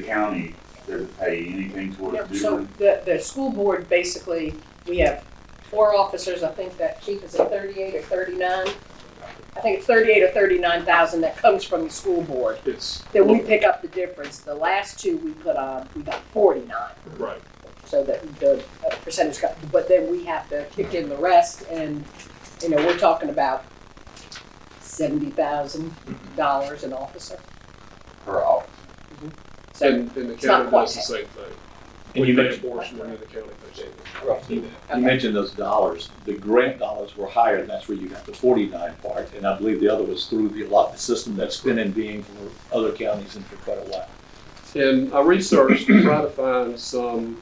The county doesn't pay anything toward No, it, so do the, the school board, basically, we have four officers, I think that chief is at thirty-eight or thirty-nine. I think it's thirty-eight or thirty-nine thousand that comes from the school board, It's, that we pick up the difference. The last two we put on, we got forty-nine, right, so that the uh, percentage got, but then we have to kick in the rest, and, you know, we're talking about seventy thousand dollars an officer, we, per office? so. and, and the it's not county does the quite same thing. And We you pay a mentioned, portion and then the county pays it. you mentioned those dollars, the grant dollars were higher, and that's where you got the forty-nine part, and I believe the other was through the allotment system that's been in being for other counties and for quite a while. And I researched to try to find some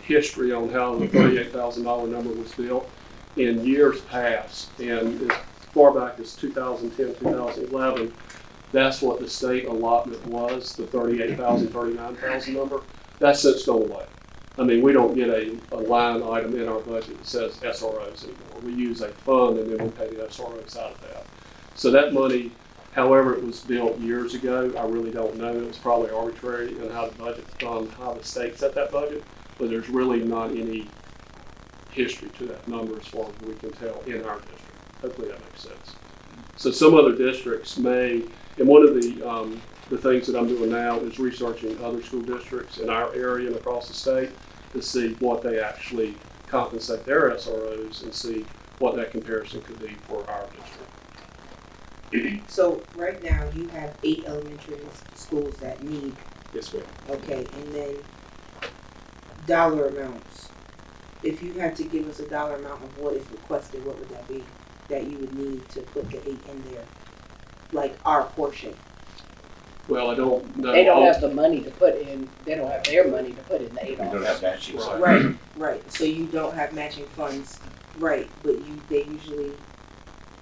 history on how the thirty-eight thousand dollar number was built in years past. And as far back as 2010, 2011, that's what the state allotment was, the thirty-eight thousand, thirty-nine thousand number. That's since gone away. I mean, we don't get a, a line item in our budget that says SROs anymore. We use a fund and then we pay the SROs out of that. So that money However, it was built years ago. I really don't know. It was probably arbitrary in how the budget, um, how the state set that budget, but there's really not any history to that number as far as we can tell in our district. Hopefully that makes sense. So some other districts may, and one of the, um, the things that I'm doing now is researching other school districts in our area and across the state to see what they actually compensate their SROs and see what that comparison could be for our district. So right now you have eight elementary s- schools that need, Yes, ma'am. okay, and then dollar amounts. If you had to give us a dollar amount of what is requested, what would that be? That you would need to put the eight in there, like our portion. Well, I don't know. They don't uh, all- have the money to put in, they don't have their money to put in the We eight don't officers. have matching. so- Right. Right, right, so you don't have matching funds, right, but you, they usually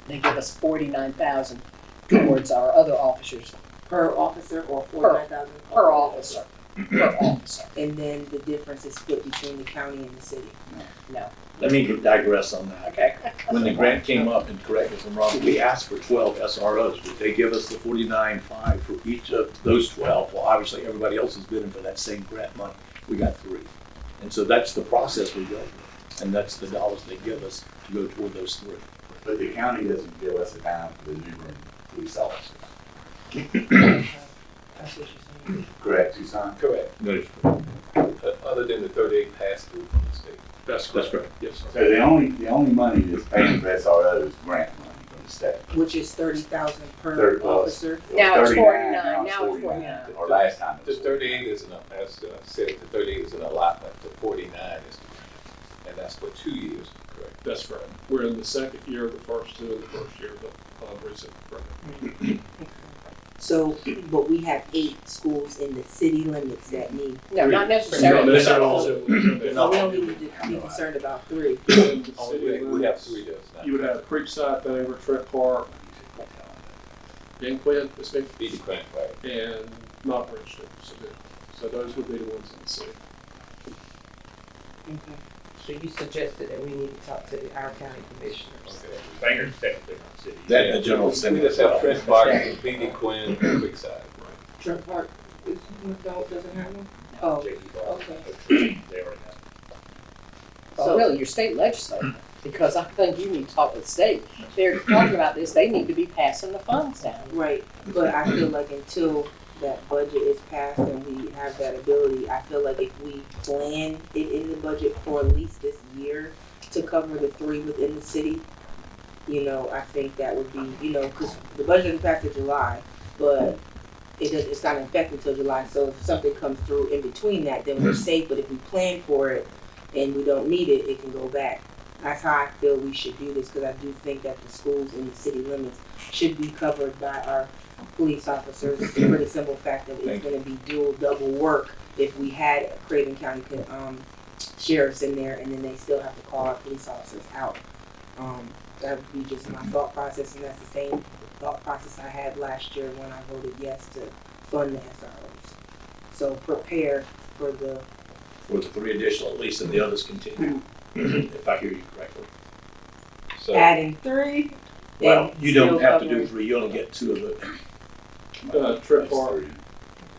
They give us forty-nine thousand towards our other officers, per officer or forty-nine thousand? per officer, per officer, And then the difference is split between the county and the city. no, Let me digress on that. okay. When the grant came up, and correct me if I'm wrong, we asked for twelve SROs, but they give us the forty-nine five for each of those twelve. Well, obviously, everybody else is bidding for that same grant money. We got three. And so that's the process we go through, and that's the dollars they give us to go toward those three. But the county doesn't give us a dime for the new room police officers, That's what you're saying. correct, Tucson? Correct, O- Uh, other than the thirty-eight pass-through from the state. That's That's correct. correct. Yes, sir. So the only, the only money that's paying for SRO is grant money from the state. which is thirty thousand per Thirty plus. officer. was Now it's 39, 49, now it's Or last time. it The was thirty-eight is an, as uh, said, the thirty-eight is an allotment, the forty-nine is, and that's for two years, correct? That's correct. We're in the second year of the first two and the first year of the uh, recent program. So, but we have eight schools in the city limits that need, No, not Not necessarily, not all. necessarily- so we don't need to be concerned about three. Only we- we have three does now. You would have Creekside, Dover, Trent Park, Dan Quinn, this big, Be the grant, right? and not Bridgeton. So the- So those would be the ones in the city. So you suggested that we need to talk to our county commissioners. Okay. Banger's technically not city. That and the general We assembly. just have Trent Park, Be the Quinn, and Creekside. Trent Park, is, no, doesn't have one? Oh, Oh, okay. They already have. well, oh, really, your state legislature, because I think you need to talk with the state. They're talking about this, they need to be passing the funds down. right, but I feel like until that budget is passed and we have that ability, I feel like if we plan it in the budget for at least this year to cover the three within the city, you know, I think that would be, you know, cause the budget is passed in July, but it does, it's not in effect until July, so if something comes through in between that, then we're safe, but if we plan for it and we don't need it, it can go back. That's how I feel we should do this, cause I do think that the schools in the city limits should be covered by our police officers for the simple fact that it's Thank gonna be dual, double work if we had Craven County, um, sheriffs in there and then they still have to call our police officers out. Um, that would be just my thought process and that's the same thought process I had last year when I voted yes to fund the SROs. So prepare for the, For the three additional at least, and the others continue, if I hear you correctly. So, adding three. Well, and you still don't have to do covering- three, you only get two of it. Uh, Trent Uh, Park, I'll Just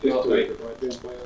to take make it right then.